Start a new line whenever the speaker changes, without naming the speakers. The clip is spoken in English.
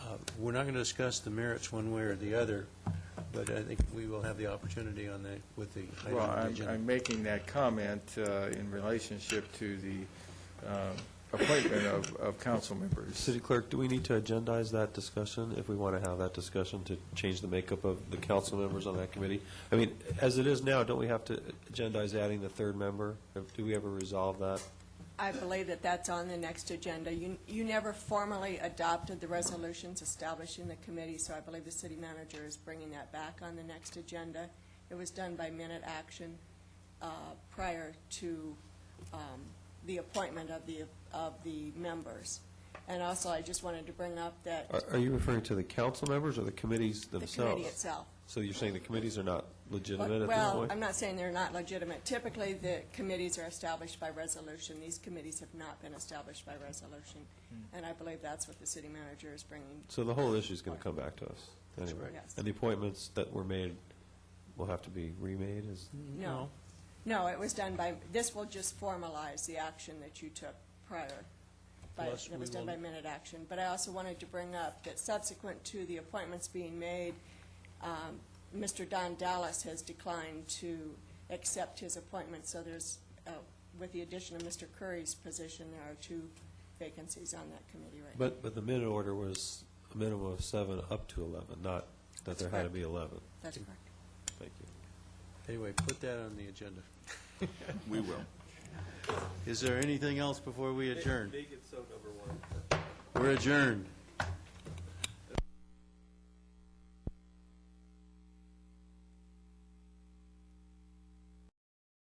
Uh, we're not going to discuss the merits one way or the other, but I think we will have the opportunity on that with the item
Well,
on the
I'm,
agenda.
I'm making that comment uh, in relationship to the uh, appointment of, of council members.
City Clerk, do we need to agendize that discussion if we want to have that discussion to change the makeup of the council members on that committee? I mean, as it is now, don't we have to agendize adding the third member? Do we ever resolve that?
I believe that that's on the next agenda. You, you never formally adopted the resolutions establishing the committee, so I believe the city manager is bringing that back on the next agenda. It was done by minute action uh, prior to um, the appointment of the, of the members. And also, I just wanted to bring up that
Are- Are you referring to the council members or the committees
the
Uh, themselves?
committee itself.
So you're saying the committees are not legitimate at this
Well,
point?
I'm not saying they're not legitimate. Typically, the committees are established by resolution. These committees have not been established by resolution, and I believe that's what the city manager is bringing.
So the whole issue's going to come back to us, anyway.
right. Yes.
And the appointments that were made will have to be remade, is,
No. No, it was done by, this will just formalize the action that you took prior. by-
Plus,
It was
we
done by
will-
minute action. But I also wanted to bring up that subsequent to the appointments being made, um, Mr. Don Dallas has declined to accept his appointment, so there's, uh, with the addition of Mr. Curry's position, there are two vacancies on that committee right now.
but, but the minute order was a minimum of seven up to 11, not that there had to
correct.
be 11.
That's correct.
Thank you.
Anyway, put that on the agenda.
We will.
Is there anything else before we adjourn? We're adjourned.